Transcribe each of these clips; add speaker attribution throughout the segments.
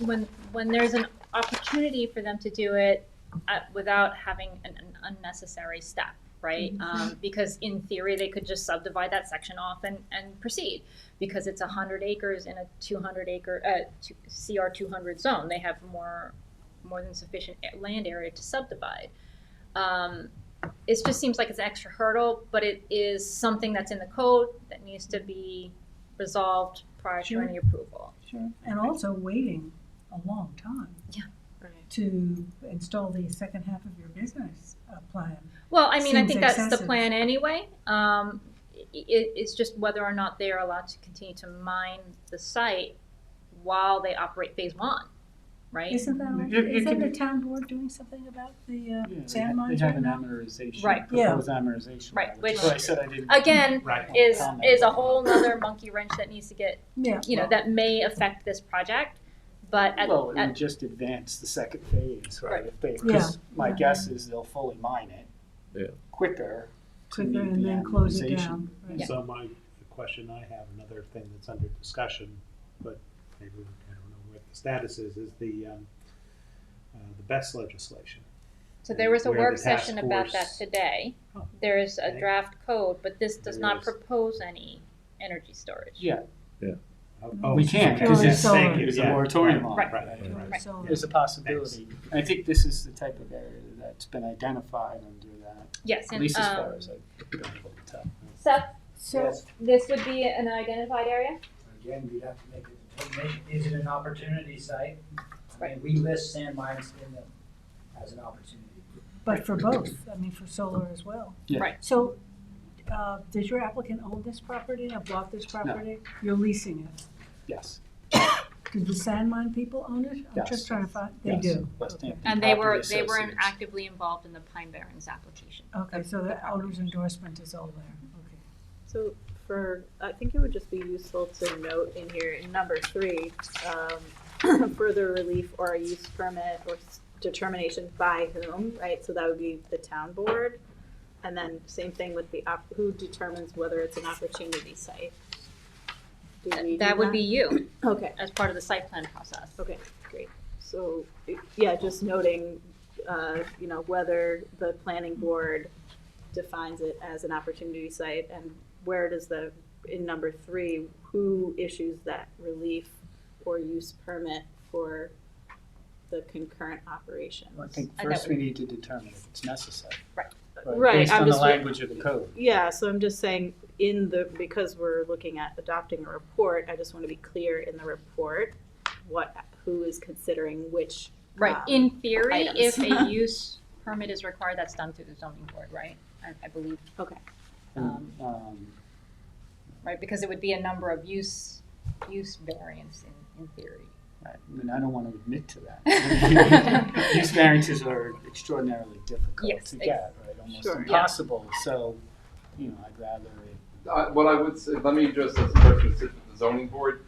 Speaker 1: when, when there's an opportunity for them to do it at- without having an an unnecessary step, right? Um, Because in theory, they could just subdivide that section off and, and proceed. Because it's hundred acres in a two hundred acre, uh, two- CR two hundred zone, they have more, more than sufficient a- land area to subdivide. Um, It just seems like it's an extra hurdle, but it is something that's in the code that needs to be resolved prior to
Speaker 2: Sure.
Speaker 1: any approval.
Speaker 2: Sure, and also waiting a long time.
Speaker 1: Yeah.
Speaker 3: Right.
Speaker 2: To install the second half of your business uh, plan.
Speaker 1: Well, I mean, I
Speaker 2: Seems
Speaker 1: think that's the
Speaker 2: excessive.
Speaker 1: plan anyway. Um, i it, it's just whether or not they are allowed to continue to mine the site while they operate phase one, right?
Speaker 2: Isn't that,
Speaker 4: It- it
Speaker 2: all- isn't
Speaker 4: can
Speaker 2: the
Speaker 4: be-
Speaker 2: town board doing something about the
Speaker 4: Yeah,
Speaker 2: uh,
Speaker 4: They
Speaker 2: sand
Speaker 4: ha- they
Speaker 2: mines
Speaker 4: have
Speaker 2: right
Speaker 4: an
Speaker 2: now?
Speaker 4: amortization,
Speaker 1: Right.
Speaker 2: Yeah.
Speaker 4: proposed amortization.
Speaker 1: Right,
Speaker 4: law,
Speaker 1: which-
Speaker 4: is why I said I didn't.
Speaker 1: Again,
Speaker 4: Right.
Speaker 1: is,
Speaker 4: Mm-hmm. Comment.
Speaker 1: is a whole nother monkey wrench that needs to get,
Speaker 2: Yeah,
Speaker 1: you know, that may affect this project, but at,
Speaker 4: Well, it would
Speaker 1: at,
Speaker 4: just advance the second phase, right?
Speaker 1: Right.
Speaker 4: If they,
Speaker 2: Yeah.
Speaker 4: because my guess is they'll fully mine it.
Speaker 5: Yeah.
Speaker 4: Quicker. to
Speaker 2: quicker
Speaker 4: meet
Speaker 2: and
Speaker 4: the
Speaker 2: then close it
Speaker 4: amortization.
Speaker 2: down. right.
Speaker 1: Yeah.
Speaker 6: So my, the question I have, another thing that's under discussion, but maybe, we- I don't know what the status is, is the, um, uh, the best legislation.
Speaker 1: so there was a
Speaker 6: Where the
Speaker 1: work
Speaker 6: task
Speaker 1: session about that
Speaker 6: force-
Speaker 1: today.
Speaker 6: Oh,
Speaker 1: There is a
Speaker 6: okay.
Speaker 1: draft code, but this does
Speaker 6: There
Speaker 1: not
Speaker 6: is.
Speaker 1: propose any energy storage.
Speaker 4: Yeah,
Speaker 2: Mm-hmm.
Speaker 6: Oh,
Speaker 4: we can't,
Speaker 6: okay.
Speaker 4: because
Speaker 2: Purely
Speaker 4: it's,
Speaker 2: solar.
Speaker 6: Thank you,
Speaker 4: there's a
Speaker 6: yeah.
Speaker 4: moratorium on it.
Speaker 6: Right, right,
Speaker 5: Right.
Speaker 6: right.
Speaker 2: So-
Speaker 4: There's a possibility. I think this is the type of area that's been identified under that,
Speaker 1: Yes,
Speaker 4: at
Speaker 1: and,
Speaker 4: least as far
Speaker 1: um,
Speaker 4: as I've been able to tell.
Speaker 1: Seth,
Speaker 7: So,
Speaker 1: this would be an identified area?
Speaker 7: again, we'd have to make a determination, is it an opportunity site? I
Speaker 1: Right.
Speaker 7: mean, we list sand mines in them as an opportunity.
Speaker 2: But for both, I mean, for solar as well.
Speaker 4: Yeah.
Speaker 1: Right.
Speaker 2: So, uh, does your applicant own this property, or bought this property? You're leasing it.
Speaker 4: Yes,
Speaker 2: Do the sand mine people own it? I'm
Speaker 4: Yes.
Speaker 2: just trying to find, they
Speaker 4: Yes.
Speaker 2: do.
Speaker 4: West Hampton
Speaker 1: And they were,
Speaker 4: Property
Speaker 1: they were in-
Speaker 4: Associates.
Speaker 1: actively involved in the Pine Barrens application.
Speaker 2: Okay, so the owner's endorsement is all there, okay.
Speaker 3: So for, I think it would just be useful to note in here, in number three, um, further relief or a use permit or s- determination by whom, right? So that would be the town board. And then same thing with the, op- who determines whether it's an opportunity site? Do we do
Speaker 1: That would be you,
Speaker 3: Okay,
Speaker 1: as part of the site plan process.
Speaker 3: okay, great. So, it- yeah, just noting, uh, you know, whether the planning board defines it as an opportunity site and where does the, in number three, who issues that relief or use permit for the concurrent operations?
Speaker 4: I think
Speaker 1: I
Speaker 4: first
Speaker 1: don't-
Speaker 4: we need to determine if it's necessary.
Speaker 1: Right.
Speaker 3: Right,
Speaker 4: Based
Speaker 3: I'm
Speaker 4: on the
Speaker 3: just-
Speaker 4: language of the code.
Speaker 3: Yeah, so I'm just saying, in the, because we're looking at adopting a report, I just want to be clear in the report, what, who is considering which.
Speaker 1: Right,
Speaker 3: um,
Speaker 1: in theory, if
Speaker 3: items.
Speaker 1: a use permit is required, that's done through the zoning board, right? I, I believe,
Speaker 4: And, um,
Speaker 1: right, because it would be a number of use, use variance in, in theory.
Speaker 4: I mean, I don't want to admit to that. These variances are extraordinarily difficult
Speaker 1: Yes,
Speaker 4: to
Speaker 1: ex-
Speaker 4: get, right? Almost
Speaker 3: Sure. Yeah.
Speaker 4: impossible. So, you know, I'd rather it
Speaker 8: Uh, what I would say, let me just, as a person who sits with the zoning board,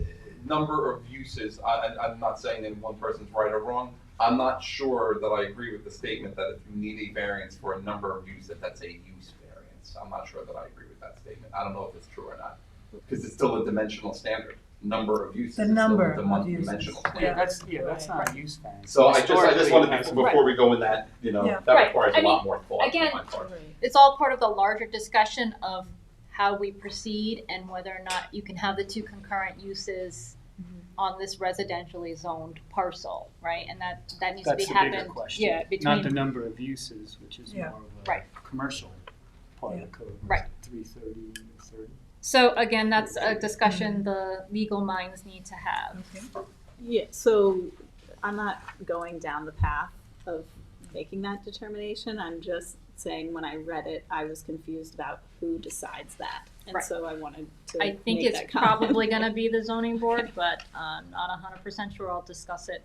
Speaker 8: eh, number of uses, I, I, I'm not saying that one person's right or wrong. I'm not sure that I agree with the statement that if you need a variance for a number of uses, that that's a use variance. I'm not sure that I agree with that statement. I don't know if it's true or not, because it's still a dimensional standard. Number of uses
Speaker 2: The
Speaker 8: is still
Speaker 2: number
Speaker 8: a
Speaker 2: of
Speaker 8: dim-
Speaker 2: uses.
Speaker 8: dimensional
Speaker 4: Yeah,
Speaker 8: standard.
Speaker 4: that's, yeah, that's not a use variance.
Speaker 8: So I just, I just wanted, to-
Speaker 4: Historically,
Speaker 8: before we go in that, you know,
Speaker 2: Yeah.
Speaker 8: that
Speaker 1: Right.
Speaker 8: requires
Speaker 1: I
Speaker 8: a lot more thought on
Speaker 1: again,
Speaker 8: my part.
Speaker 1: It's all part of the larger discussion of how we proceed and whether or not you can have the two concurrent uses on this residentially zoned parcel, right? And that, that needs to be
Speaker 4: That's the bigger
Speaker 1: happened,
Speaker 4: question.
Speaker 1: yeah, between
Speaker 4: Not the number of uses, which is more
Speaker 2: Yeah.
Speaker 4: of
Speaker 1: Right.
Speaker 4: a commercial part of the code.
Speaker 1: Right.
Speaker 4: Three thirty, thirty.
Speaker 1: So again, that's a discussion the legal minds need to have.
Speaker 3: Yeah, so I'm not going down the path of making that determination. I'm just saying when I read it, I was confused about who decides that. And
Speaker 1: Right.
Speaker 3: so I wanted to
Speaker 1: I think
Speaker 3: make
Speaker 1: it's
Speaker 3: that comment.
Speaker 1: probably gonna be the zoning board, but I'm not hundred percent sure, I'll discuss it.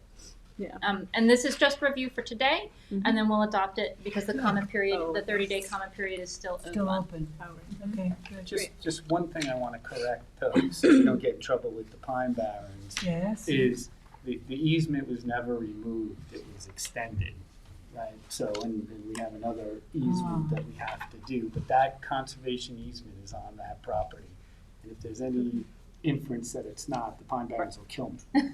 Speaker 3: Yeah.
Speaker 1: Um, and this is just review for today, and
Speaker 3: Mhm.
Speaker 1: then we'll adopt it, because the comment period,
Speaker 3: Oh.
Speaker 1: the thirty-day comment period is still
Speaker 2: Still
Speaker 1: open.
Speaker 2: open,
Speaker 3: Oh,
Speaker 2: okay, good.
Speaker 4: Just, just one thing I want to correct though, so you don't get in trouble with the pine barrens,
Speaker 2: Yes,
Speaker 4: is the, the easement was never removed, it was extended, right? So, and, and we have another easement that we have to do, but that conservation easement is on that property. And if there's any inference that it's not, the pine barrens will kill me.